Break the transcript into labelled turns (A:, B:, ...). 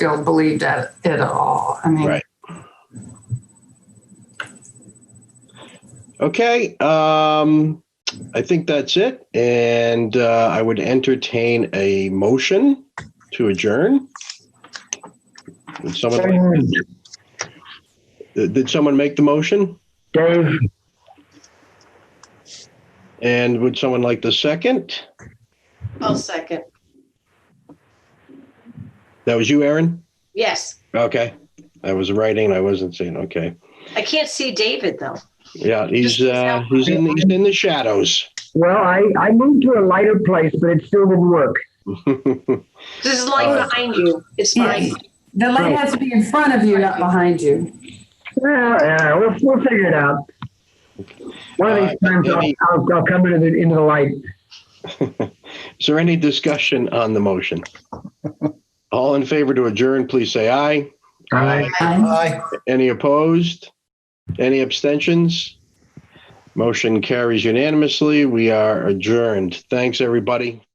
A: Field believed at it at all. I mean,
B: Right. Okay, um, I think that's it. And uh, I would entertain a motion to adjourn. Did someone,
C: Dave,
B: did someone make the motion?
C: Dave,
B: And would someone like the second?
D: I'll second.
B: That was you, Aaron?
D: Yes.
B: Okay. I was writing, I wasn't seeing. Okay.
D: I can't see David though.
B: Yeah, he's uh, he's in he's in the shadows.
C: well, I, I moved to a lighter place, but it still didn't work.
D: This is lying
B: Uh,
D: behind you. It's
A: yeah,
D: fine.
A: the light has to be in front of you, not behind you.
C: Yeah, yeah, we'll, we'll figure it out. One of these
B: Uh,
C: times I'll,
B: any-
C: I'll, I'll come into the, into the light.
B: Is there any discussion on the motion? All in favor to adjourn, please say aye.
C: Aye.
A: Aye.
B: Any opposed? Any abstentions? Motion carries unanimously. We are adjourned. Thanks, everybody.